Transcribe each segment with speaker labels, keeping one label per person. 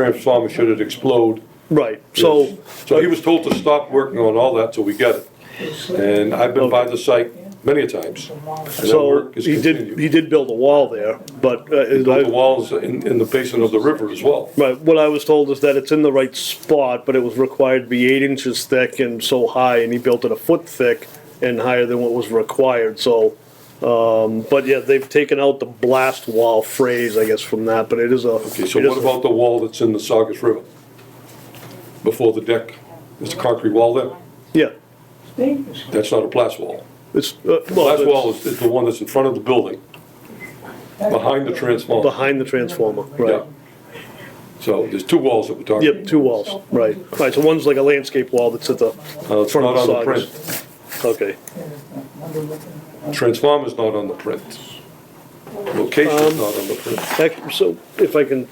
Speaker 1: transformer should it explode.
Speaker 2: Right, so,
Speaker 1: So he was told to stop working on all that till we get it. And I've been by the site many a times. and that
Speaker 2: so
Speaker 1: work is
Speaker 2: he did,
Speaker 1: continued.
Speaker 2: he did build a wall there, but, uh,
Speaker 1: The
Speaker 2: I-
Speaker 1: walls in, in the basin of the river as well.
Speaker 2: right, what I was told is that it's in the right spot, but it was required to be eight inches thick and so high, and he built it a foot thick and higher than what was required, so, um, but yeah, they've taken out the blast wall phrase, I guess, from that, but it is a.
Speaker 1: Okay, so
Speaker 2: it is
Speaker 1: what
Speaker 2: a-
Speaker 1: about the wall that's in the Saugus River? Before the deck, there's a concrete wall there.
Speaker 2: Yeah,
Speaker 1: That's not a blast wall.
Speaker 2: it's, uh, well,
Speaker 1: Blast wall
Speaker 2: it's
Speaker 1: is, is the one that's in front of the building, behind the transformer.
Speaker 2: behind the transformer, right.
Speaker 1: Yeah. So there's two walls that we're talking.
Speaker 2: Yep, two walls, right. Right, so one's like a landscape wall that's at the
Speaker 1: Uh, it's
Speaker 2: front
Speaker 1: not
Speaker 2: of
Speaker 1: on
Speaker 2: the
Speaker 1: the
Speaker 2: Saugus.
Speaker 1: print.
Speaker 2: Okay.
Speaker 1: Transformer's not on the print. Location's not on the print.
Speaker 2: Ac- So if I can.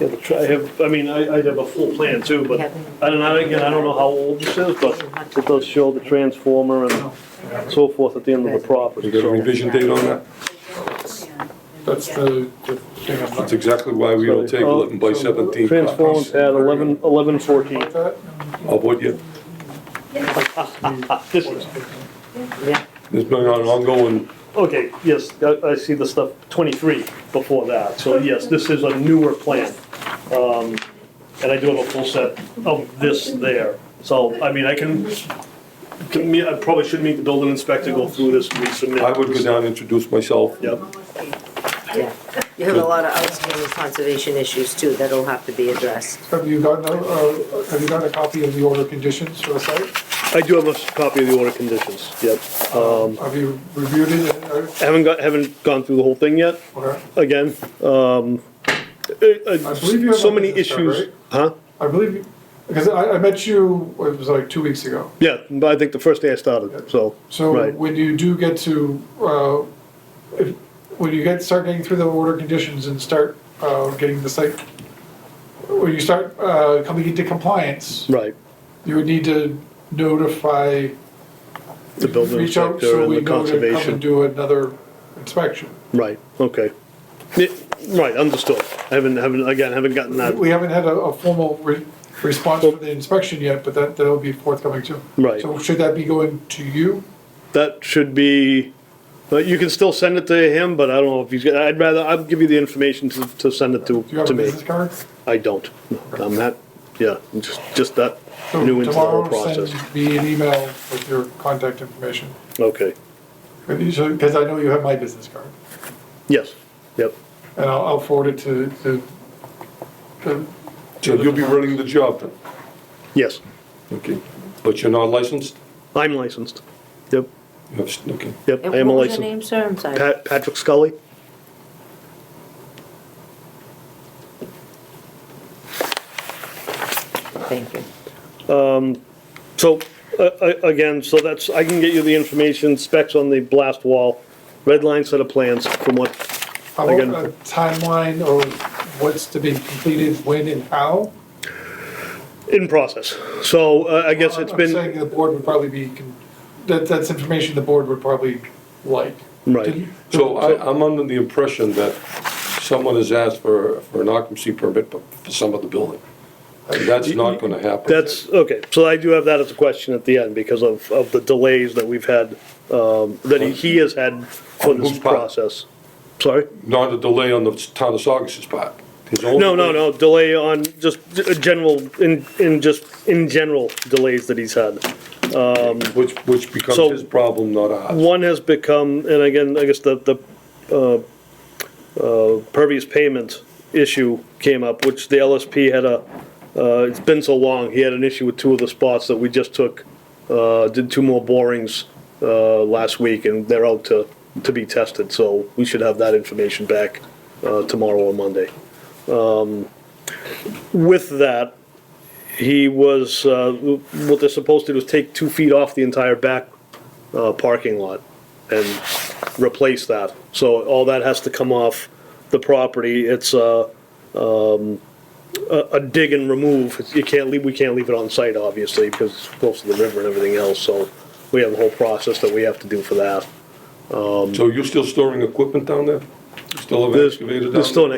Speaker 2: Yeah, the tri- I have, I mean, I, I have a full plan too, but I don't know, again, I don't know how old this is, but it does show the transformer and so forth at the end of the property,
Speaker 1: You got a
Speaker 2: so.
Speaker 1: revision date on that?
Speaker 3: That's the, the thing I'm
Speaker 1: That's
Speaker 3: looking
Speaker 1: exactly why we don't table it and by seventeen.
Speaker 2: Transformer's at eleven, eleven fourteen.
Speaker 3: at.
Speaker 1: Of what you,
Speaker 2: This is,
Speaker 1: there's been an ongoing,
Speaker 2: okay, yes, I, I see the stuff twenty-three before that, so yes, this is a newer plan. Um, and I do have a full set of this there, so, I mean, I can, can me- I probably should meet the building inspector, go through this, resubmit.
Speaker 1: I would go down and introduce myself.
Speaker 2: Yep,
Speaker 4: Yeah, you have a lot of outstanding conservation issues too that'll have to be addressed.
Speaker 3: Have you gotten, a- uh, have you gotten a copy of the order conditions for the site?
Speaker 2: I do have a copy of the order conditions, yep. Um,
Speaker 3: Have you reviewed it? and, uh,
Speaker 2: I haven't got, haven't gone through the whole thing yet,
Speaker 3: okay.
Speaker 2: again, um, eh, eh,
Speaker 3: I believe you have
Speaker 2: so
Speaker 3: one
Speaker 2: many
Speaker 3: in this,
Speaker 2: issues,
Speaker 3: right?
Speaker 2: huh?
Speaker 3: I believe, you- because I, I met you, it was like two weeks ago.
Speaker 2: Yeah, but I think the first day I started, so,
Speaker 3: So
Speaker 2: right,
Speaker 3: when you do get to, uh, if, when you get, start getting through the order conditions and start, uh, getting the site, when you start, uh, coming into compliance,
Speaker 2: right.
Speaker 3: you would need to notify
Speaker 2: The building
Speaker 3: reach out
Speaker 2: inspector
Speaker 3: so
Speaker 2: and
Speaker 3: we
Speaker 2: the
Speaker 3: know to come and
Speaker 2: conservation.
Speaker 3: do another inspection.
Speaker 2: Right, okay. Yeah, Right, understood. I haven't, haven't, again, haven't gotten that,
Speaker 3: We haven't had a, a formal re- response for the inspection yet, but that, that'll be forthcoming too.
Speaker 2: Right.
Speaker 3: So should that be going to you?
Speaker 2: that should be, but you can still send it to him, but I don't know if he's, got- I'd rather, I'll give you the information to, to send it to,
Speaker 3: Do you have
Speaker 2: to
Speaker 3: a
Speaker 2: me.
Speaker 3: business card?
Speaker 2: I don't. I'm not, yeah, just, just that
Speaker 3: So
Speaker 2: new into the whole
Speaker 3: tomorrow,
Speaker 2: process.
Speaker 3: send me an email with your contact information,
Speaker 2: Okay,
Speaker 3: because I know you have my business card.
Speaker 2: yes, yep,
Speaker 3: And I'll, I'll forward it to, to, to,
Speaker 1: So you'll be running the job then?
Speaker 2: yes.
Speaker 1: Okay. But you're not licensed?
Speaker 2: I'm licensed. Yep,
Speaker 1: You have- Okay.
Speaker 2: yep,
Speaker 4: And
Speaker 2: I am a
Speaker 4: what was
Speaker 2: licensed.
Speaker 4: your name, sir? I'm sorry.
Speaker 2: Pat, Patrick Scully?
Speaker 4: Thank you.
Speaker 2: So, uh, uh, again, so that's, I can get you the information, specs on the blast wall, red line set of plans from what,
Speaker 3: how
Speaker 2: Again.
Speaker 3: about uh, a timeline or what's to be completed, when and how?
Speaker 2: in process. So uh, I guess it's
Speaker 3: I'm
Speaker 2: been,
Speaker 3: saying the board would probably be, con- that, that's information the board would probably like.
Speaker 2: Right.
Speaker 3: Didn't-
Speaker 1: So I, I'm under the impression that someone has asked for, for an occupancy permit but for some of the building. And that's not gonna happen.
Speaker 2: that's, okay, so I do have that as a question at the end because of, of the delays that we've had, um, that he- he has had for
Speaker 1: On
Speaker 2: this
Speaker 1: whose part?
Speaker 2: process. Sorry?
Speaker 1: Not a delay on the town of Saugus's part. His own-
Speaker 2: No, no, no, delay on just g- general, in, in just, in general delays that he's had.
Speaker 1: Which, which becomes
Speaker 2: So-
Speaker 1: his problem, not ours.
Speaker 2: One has become, and again, I guess the, the, uh, uh, pervious payment issue came up, which the LSP had a, uh, it's been so long, he had an issue with two of the spots that we just took, uh, did two more borings, uh, last week, and they're out to, to be tested, so we should have that information back, uh, tomorrow or Monday. Um, With that, he was, uh, what they're supposed to do is take two feet off the entire back uh, parking lot and replace that. So all that has to come off the property. It's a, um, a, a dig and remove. It's- You can't leave, we can't leave it on site, obviously, because it's close to the river and everything else, so we have a whole process that we have to do for that.
Speaker 1: So you're still storing equipment down there? You Still have an
Speaker 2: There's,
Speaker 1: excavator down there?
Speaker 2: there's still an